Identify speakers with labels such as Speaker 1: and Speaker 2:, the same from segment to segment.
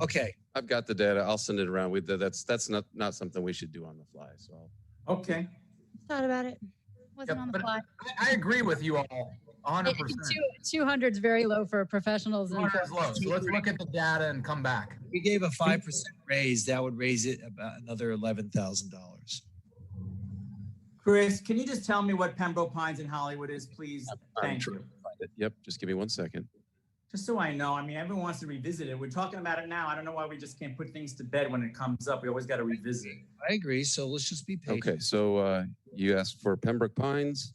Speaker 1: Okay,
Speaker 2: I've got the data. I'll send it around. We, that- that's, that's not, not something we should do on the fly, so. I'll-
Speaker 3: Okay.
Speaker 4: Thought about it.
Speaker 5: Wasn't on the
Speaker 3: but-
Speaker 5: fly.
Speaker 3: I, I agree with you all, hundred percent.
Speaker 5: Two hundred's very low for professionals and
Speaker 3: Water is low, so let's look at the data and come back.
Speaker 1: if we gave a five percent raise, that would raise it about another eleven thousand dollars.
Speaker 6: Chris, can you just tell me what Pembroke Pines and Hollywood is, please?
Speaker 2: I'm
Speaker 6: Thank
Speaker 2: trying
Speaker 6: you.
Speaker 2: Yep, just give me one second.
Speaker 6: Just so I know, I mean, everyone wants to revisit it. We're talking about it now. I don't know why we just can't put things to bed when it comes up. We always got to revisit.
Speaker 1: I agree, so let's just be patient.
Speaker 2: Okay, so uh, you asked for Pembroke Pines.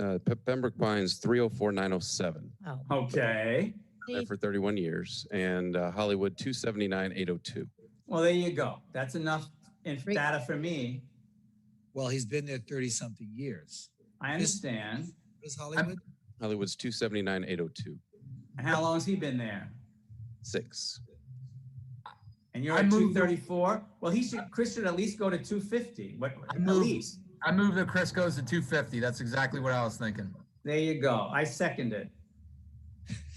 Speaker 2: Uh, Pe- Pembroke Pines, 304907,
Speaker 4: Oh.
Speaker 6: Okay,
Speaker 2: there for 31 years, and uh, Hollywood, 279802.
Speaker 6: well, there you go. That's enough inf-
Speaker 5: Great.
Speaker 6: data for me.
Speaker 1: Well, he's been there thirty-something years.
Speaker 6: I understand.
Speaker 1: Is Hollywood?
Speaker 2: Hollywood's 279802,
Speaker 6: And how long has he been there?
Speaker 2: 6.
Speaker 6: And you're
Speaker 3: I
Speaker 6: at two
Speaker 3: moved-
Speaker 6: thirty-four? Well, he should, Chris should at least go to two fifty. What,
Speaker 3: I
Speaker 6: at
Speaker 3: moved.
Speaker 6: least.
Speaker 3: I move that Chris goes to two fifty. That's exactly what I was thinking.
Speaker 6: There you go. I second it.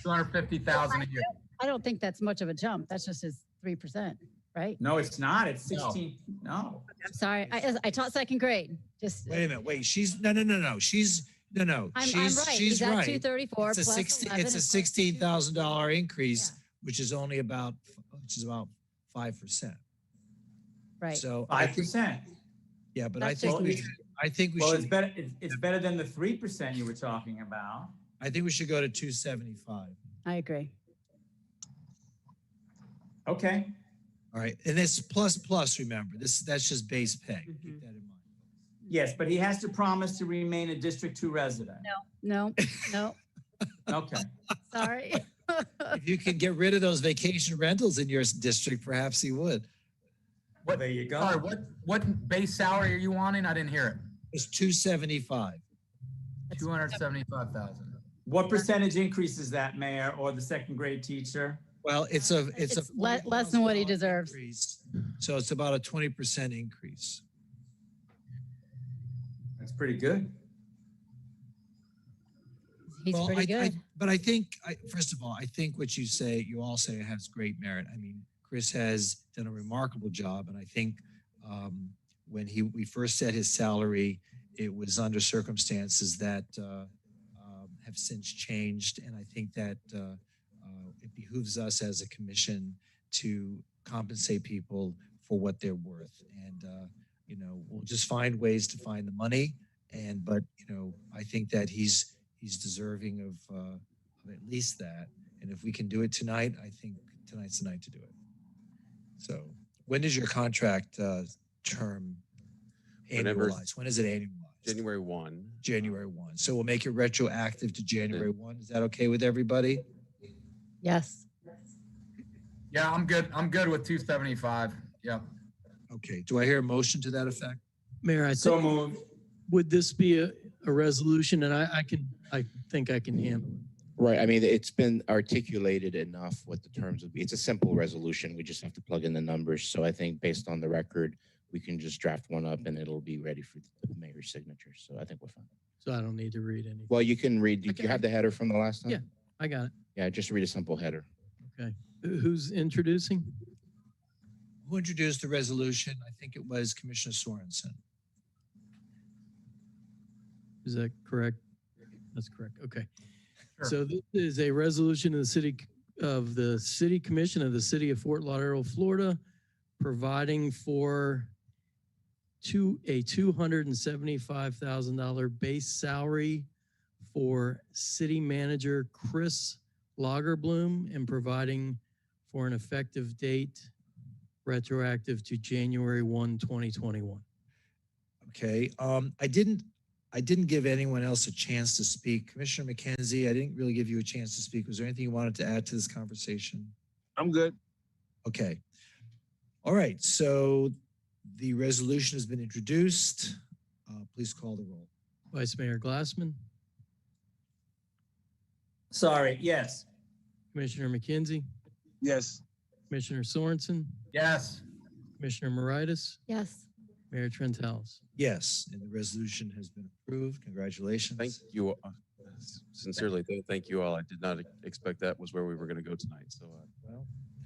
Speaker 3: Two hundred fifty thousand a year.
Speaker 5: I don't think that's much of a jump. That's just his three percent, right?
Speaker 6: No, it's not. It's
Speaker 3: No.
Speaker 6: sixteen. No.
Speaker 5: I'm sorry. I, I taught second grade, just,
Speaker 1: Wait a minute, wait, she's, no, no, no, no, she's, no, no,
Speaker 5: I'm, I'm
Speaker 1: she's,
Speaker 5: right.
Speaker 1: she's
Speaker 5: He's at two
Speaker 1: right.
Speaker 5: thirty-four
Speaker 1: It's a
Speaker 5: plus
Speaker 1: sixteen,
Speaker 5: eleven.
Speaker 1: it's a sixteen thousand dollar increase,
Speaker 5: Yeah.
Speaker 1: which is only about, which is about five percent.
Speaker 5: Right.
Speaker 1: So I
Speaker 6: Five
Speaker 1: think,
Speaker 6: percent.
Speaker 1: yeah, but I
Speaker 5: That's
Speaker 1: think
Speaker 6: just-
Speaker 1: we, should- I think we
Speaker 6: Well, it's
Speaker 1: should,
Speaker 6: better, it's, it's better than the three percent you were talking about.
Speaker 1: I think we should go to two seventy-five.
Speaker 5: I agree.
Speaker 6: Okay,
Speaker 1: All right, and this plus plus, remember, this, that's just base pay. Keep
Speaker 5: Mhm.
Speaker 1: that in mind.
Speaker 6: yes, but he has to promise to remain a District Two resident.
Speaker 5: No, no,
Speaker 6: Okay,
Speaker 5: sorry.
Speaker 1: If you could get rid of those vacation rentals in your s- district, perhaps he would.
Speaker 6: well, there you
Speaker 3: Sorry,
Speaker 6: go.
Speaker 3: what, what base salary are you wanting? I didn't hear
Speaker 1: It's two seventy-five.
Speaker 3: it. Two hundred seventy-five thousand.
Speaker 6: What percentage increase is that, Mayor, or the second grade teacher?
Speaker 1: Well, it's a, it's a.
Speaker 5: It's le- less than what he
Speaker 1: $40,000
Speaker 5: deserves.
Speaker 1: increase, So it's about a twenty percent increase.
Speaker 6: That's pretty good.
Speaker 5: He's
Speaker 1: Well,
Speaker 5: pretty
Speaker 1: I- I-
Speaker 5: good.
Speaker 1: But I think, I, first of all, I think what you say, you all say has great merit. I mean, Chris has done a remarkable job, and I think um, when he, we first set his salary, it was under circumstances that uh, um, have since changed, and I think that uh, uh, it behooves us as a commission to compensate people for what they're worth. And, uh, you know, we'll just find ways to find the money, and, but, you know, I think that he's, he's deserving of, uh, of at least that. And if we can do it tonight, I think tonight's the night to do it. So when does your contract, uh, term
Speaker 2: Whenever-
Speaker 1: annualize? When is it annualized?
Speaker 2: January 1.
Speaker 1: January one. So we'll make it retroactive to January one. Is that okay with everybody?
Speaker 5: Yes.
Speaker 3: Yeah, I'm good. I'm good with two seventy-five. Yep.
Speaker 1: Okay. Do I hear a motion to that effect?
Speaker 7: Mayor, I
Speaker 6: So
Speaker 7: think,
Speaker 6: moved.
Speaker 7: would this be a, a resolution? And I, I can, I think I can handle it.
Speaker 8: Right, I mean, it's been articulated enough what the terms would be. It's a simple resolution. We just have to plug in the numbers. So I think based on the record, we can just draft one up and it'll be ready for the mayor's signature. So I think we're fine.
Speaker 7: So I don't need to read any.
Speaker 8: Well, you can read, did
Speaker 7: Okay.
Speaker 8: you have the header from the last time?
Speaker 7: Yeah. I got it.
Speaker 8: Yeah, just read a simple header.
Speaker 7: Who- Who's introducing?
Speaker 1: Who introduced the resolution? I think it was Commissioner Sorensen.
Speaker 7: Is that correct? That's correct. Okay.
Speaker 3: Sure.
Speaker 7: So this is a resolution of the city, of the City Commission of the City of Fort Lauderdale, Florida, providing for two, a two hundred and seventy-five thousand dollar base salary for city manager Chris Lagerbloom and providing for an effective date retroactive to January 1, 2021.
Speaker 1: Okay, um, I didn't, I didn't give anyone else a chance to speak. Commissioner McKenzie, I didn't really give you a chance to speak. Was there anything you wanted to add to this conversation?
Speaker 9: I'm good.
Speaker 1: Okay. All right, so the resolution has been introduced. Uh, please call the roll.
Speaker 7: Vice Mayor Glassman,
Speaker 6: Sorry, yes.
Speaker 7: Commissioner McKenzie,
Speaker 9: Yes.
Speaker 7: Commissioner Sorensen,
Speaker 3: Yes.
Speaker 7: Commissioner Moritas,
Speaker 5: Yes.
Speaker 7: Mayor Trentalis.
Speaker 1: Yes, and the resolution has been approved. Congratulations.
Speaker 2: Thank you. uh, Sincerely, th- thank you all. I did not expect that was where we were going to go tonight, so. uh,
Speaker 1: Well,